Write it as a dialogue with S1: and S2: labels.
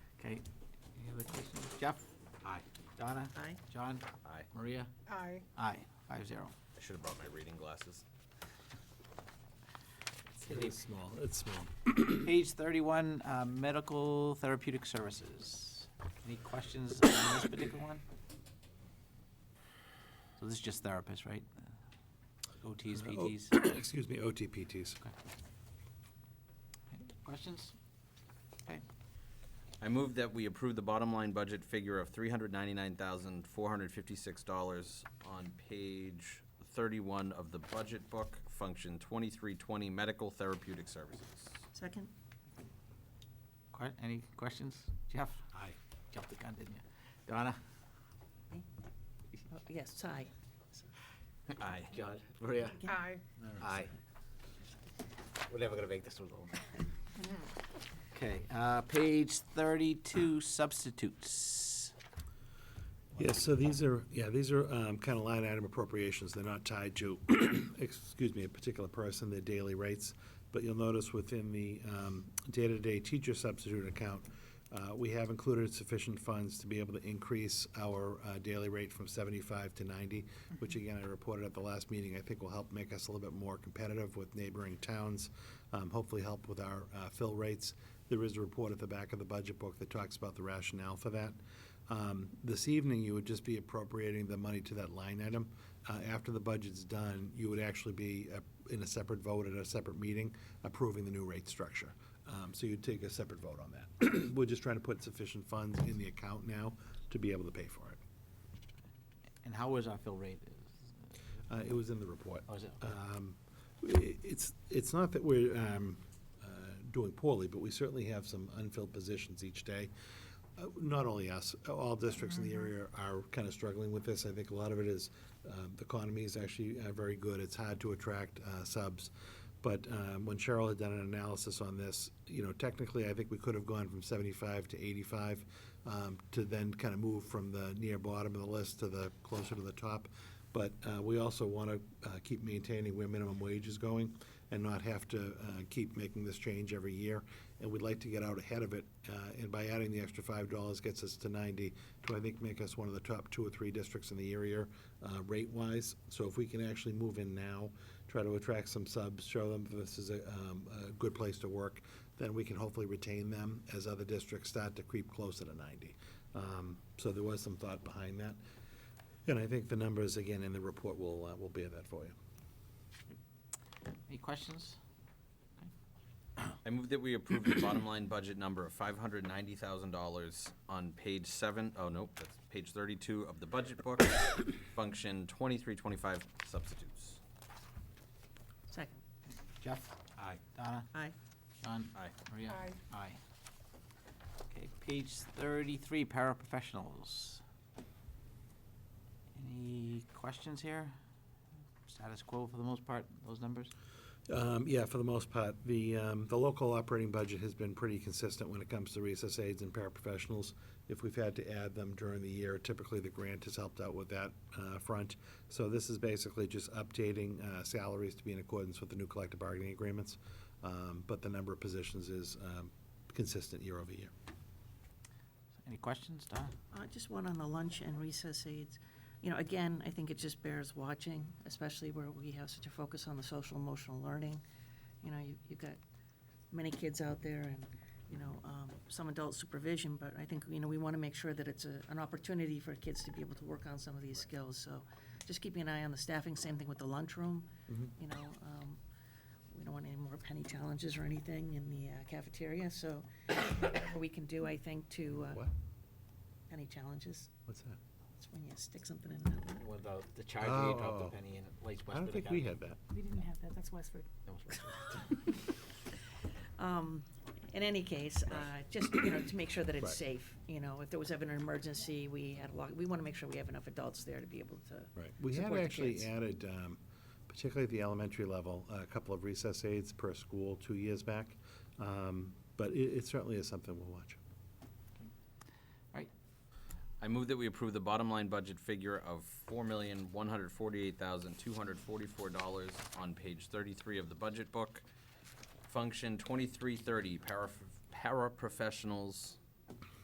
S1: right. Any other questions? Jeff?
S2: Aye.
S1: Donna?
S3: Aye.
S1: John?
S2: Aye.
S1: Maria?
S3: Aye.
S1: Aye, five zero.
S2: I should have brought my reading glasses.
S4: It is small, it's small.
S1: Page thirty-one, uh, medical therapeutic services. Any questions on this particular one? So this is just therapists, right? OTs,
S4: Uh, oh,
S1: PTs? Okay.
S4: Excuse me, OTPTs.
S1: Any Questions? Okay,
S2: I move that we approve the bottom line budget figure of three hundred ninety-nine thousand, four hundred fifty-six dollars on page thirty-one of the budget book, function twenty-three twenty, medical therapeutic services.
S3: Second?
S1: que- any questions? Jeff?
S2: Aye.
S1: Jumped the gun, didn't you? Donna?
S3: Oh, Yes, aye.
S2: Aye.
S1: John. Maria?
S3: Aye.
S1: Aye. We're never gonna make this one long. Okay, uh, page thirty-two, substitutes.
S4: Yeah, so these are, yeah, these are kind of line item appropriations. They're not tied to, excuse me, a particular person, their daily rates. But you'll notice within the um, day-to-day teacher substitute account, uh, we have included sufficient funds to be able to increase our uh, daily rate from 75 to 90, which again, I reported at the last meeting, I think will help make us a little bit more competitive with neighboring towns, um, hopefully help with our uh, fill rates. There is a report at the back of the budget book that talks about the rationale for that. Um, This evening, you would just be appropriating the money to that line item. Uh, After the budget's done, you would actually be uh, in a separate vote at a separate meeting approving the new rate structure. Um, So you'd take a separate vote on that. We're just trying to put sufficient funds in the account now to be able to pay for it.
S1: And how was our fill rate?
S4: Uh, It was in the report.
S1: Oh, is it?
S4: Um, i- It's, it's not that we're um, uh, doing poorly, but we certainly have some unfilled positions each day. Uh, Not only us, all districts in the area are kind of struggling with this. I think a lot of it is, um, the economy is actually uh, very good. It's hard to attract uh, subs. But um, when Cheryl had done an analysis on this, you know, technically, I think we could have gone from 75 to 85 um, to then kind of move from the near bottom of the list to the, closer to the top. But uh, we also want to keep maintaining where minimum wage is going and not have to uh, keep making this change every year. And we'd like to get out ahead of it. uh, And by adding the extra five dollars gets us to ninety, to I think make us one of the top two or three districts in the area uh, rate-wise. So if we can actually move in now, try to attract some subs, show them this is a um, a good place to work, then we can hopefully retain them as other districts start to creep closer to ninety. Um, So there was some thought behind that. And I think the numbers, again, in the report will, uh, will bear that for you.
S1: Any questions?
S2: I move that we approve the bottom line budget number of five hundred ninety thousand dollars on page seven, oh, nope, that's page thirty-two of the budget book, function twenty-three twenty-five substitutes.
S3: Second?
S1: Jeff?
S2: Aye.
S1: Donna?
S3: Aye.
S1: John?
S2: Aye.
S1: Maria?
S3: Aye.
S1: Oh, Aye. Okay, page thirty-three, paraprofessionals. Any questions here? Status quo for the most part, those numbers?
S4: Um, Yeah, for the most part, the, um, the local operating budget has been pretty consistent when it comes to recess aides and paraprofessionals. If we've had to add them during the year, typically the grant has helped out with that uh, front. So this is basically just updating uh, salaries to be in accordance with the new collective bargaining agreements. Um, But the number of positions is um, consistent year over year.
S1: Any questions, Donna?
S3: Uh, Just one on the lunch and recess aids. You know, again, I think it just bears watching, especially where we have such a focus on the social emotional learning. You know, you- you've got many kids out there and, you know, um, some adult supervision, but I think, you know, we want to make sure that it's a- an opportunity for kids to be able to work on some of these skills. So just keeping an eye on the staffing, same thing with the lunchroom, you know. um, We don't want any more penny challenges or anything in the uh, cafeteria, so whatever we can do, I think, to. uh,
S4: What?
S3: Penny challenges?
S4: What's that?
S3: It's when you stick something in. the-
S1: With the
S4: charger, you drop the Oh.
S1: penny in it, lights
S4: I don't think we had that.
S5: We didn't have that, that's Westford.
S3: Um, In any case, uh, just, you know, to make sure that it's
S4: Right.
S3: safe, you know, if there was ever an emergency, we had a lot, we want to make sure we have enough adults there to be able to.
S4: Right. We have
S3: support the
S4: actually
S3: kids.
S4: added, um, particularly at the elementary level, a couple of recess aides per school two years back. Um, But it it certainly is something we'll watch.
S1: Right,
S2: I move that we approve the bottom line budget figure of four million, one hundred forty-eight thousand, two hundred forty-four dollars on page thirty-three of the budget book. Function twenty-three thirty, para, paraprofessionals,